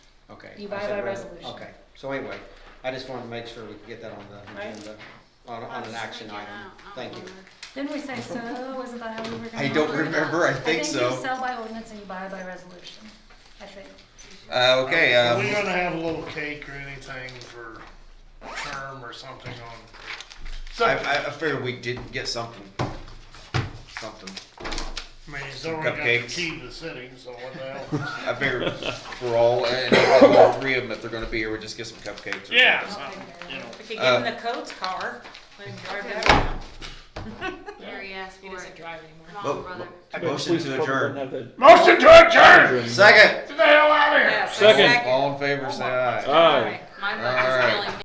Okay. You I buy said by res- resolution. Okay, so anyway, I just wanted to make sure we could get that on the Right. agenda, on, on an action item. Thank you. Didn't we say so, wasn't that how we were gonna? I don't operate? remember. I think I think so. you sell by ordinance and you buy by resolution, I think. Uh, okay, Are we um, gonna have a little cake or anything for term or something on? I, I- I figured we didn't get something, something. I mean, he's already got the Cupcakes. key to the city, so what the hell? I figured for all, uh, and all all three of them, if they're gonna be here, we just get some cupcakes. or Yeah, something. so, you know, We could give Uh, him the codes car, let him drive it around. Gary asked He for doesn't it. drive anymore. Come on, Mo- brother. mo- Motion to adjourn. motion to adjourn, Second. get the hell out of here. Yeah, so Second. All in favor, say aye. Aye. My All book right. is killing me.